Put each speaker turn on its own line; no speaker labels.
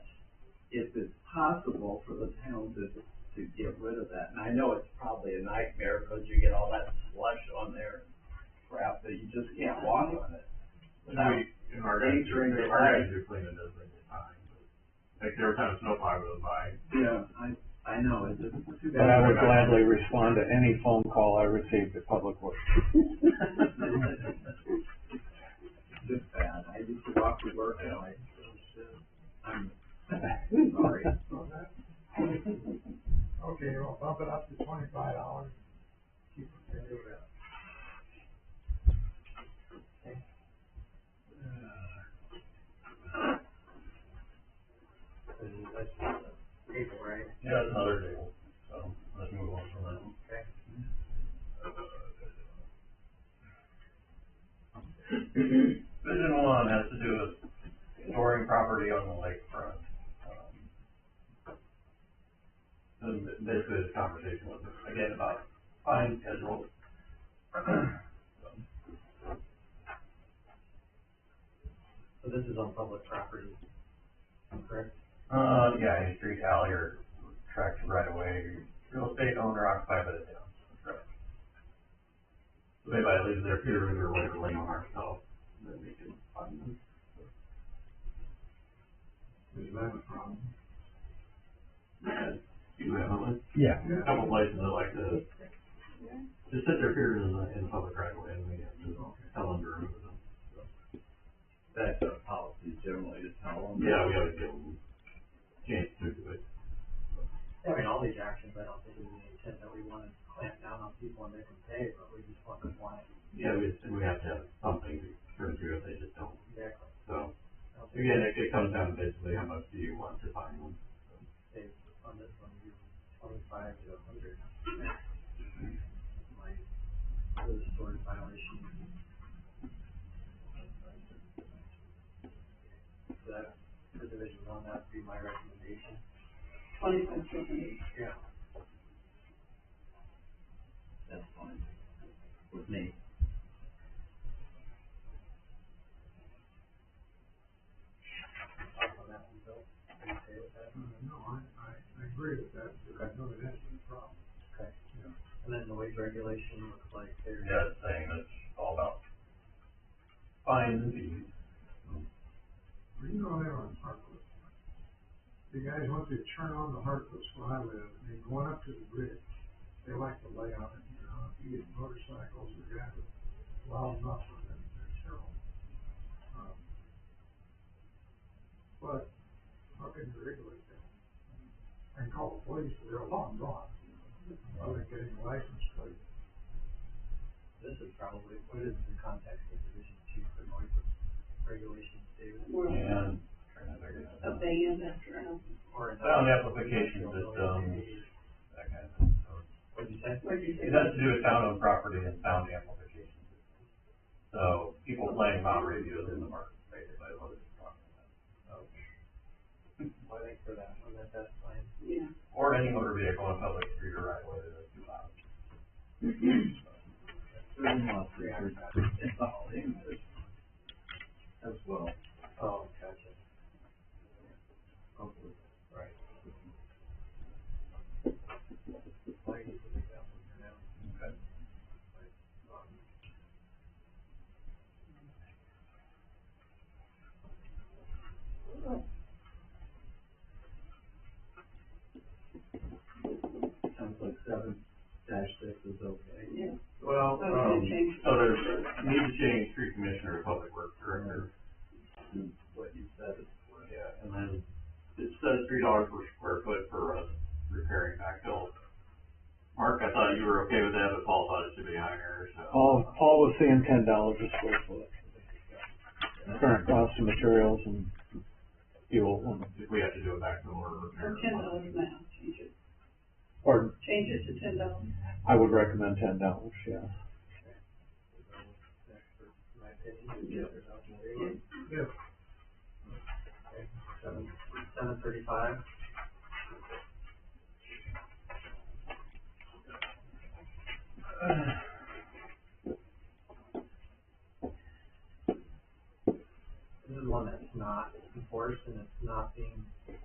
possible for the town to, to get rid of that? And I know it's probably a nightmare because you get all that slush on there, crap that you just can't walk on it.
And we, in our guys,
Nature and
in our guys are cleaning this thing in time. Like there were times snowplow goes by,
Yeah, I, I know, it's just it's too
But I
bad.
would gladly respond to any phone call I received at Public Works.
Just bad, I used to walk to work and I, I'm sorry.
Okay, we'll bump it up to twenty-five dollars. Keep it there, do that. And that's April, right?
yeah, it's another day, so let's move on from that.
Okay.
Vision one has to do with storing property on the lakefront. Um, And basically, this conversation was again about fine schedule.
So this is on public property, correct?
Uh, yeah, any street, alley, or tract of right of way, real estate owner occupied by the town. Correct. So They might leave their peer review or whatever lane on ourselves, then we can find them.
Does that have a problem?
Yeah, You have one,
Yeah.
a couple places that like to, just sit their peers in the, in the public right away, and we have to tell them to remove them.
That's our policy generally to tell them.
Yeah, we always give them a chance to do it.
I mean, all these actions, I don't think we intend that we wanna clamp down on people and make them pay, but we just want them wanting,
Yeah, we, we have to have something to turn through if they just don't,
exactly.
so,
I don't think
again, it, it comes down to basically how much do you want to fine them?
say on this one, you twenty-five to a hundred. My, those sort of violations. That, the division on that would be my recommendation.
twenty-five to a hundred.
Yeah.
That's fine. With me.
On that one, Bill, are you okay with that? No, I, I, I agree with that, because I know that that's the problem. Okay. And then the wage regulation looks like they're.
Yeah, it's saying it's all about fines and fees.
Well, You know they're on Harkless. The guys, once they turn on the Harkless where I live, and they going up to the bridge, they like to lay on it, you know, if you get motorcycles or guys with loud mufflers, and they're terrible. Um, But, how can you regulate that? I can call the police, but they're long gone, Well, they're getting a license plate.
This is probably, what is the context of division two for noise regulations, David?
We're
And, trying to figure that out.
abandoned after um, a
Or.
Well, the application um, system, that kind of thing, so.
What you said?
What'd you say?
It has to do with town-owned property and town amplification. So people playing mountain radios in the market, basically, is what it's talking about.
I think for that one, that, that's fine.
Yeah.
Or any motor vehicle on public street or right away that's too loud.
Certain laws require it's all in this as well.
Oh, gotcha.
hopefully.
Right. I need to make that one for now.
Okay.
Um,
Sounds like seven dash six is okay.
Yeah.
Well,
So it's gonna
um,
change.
so there's, need to change street commissioner to public works director.
And What you said is correct.
Yeah, and then it says three dollars per square foot for uh, repairing backfill. Mark, I thought you were okay with that, but Paul thought it should be higher,
Oh.
so.
Paul, Paul was saying ten dollars a square foot. Current cost of materials and fuel,
If we have to do a backfill or repair.
Or ten dollars now, change it,
or
change it to ten dollars.
I would recommend ten dollars, yeah.
that's for My opinion, is there's nothing there.
Yes,
Okay, Seven, seven thirty-five. This is one that's not enforced and it's not being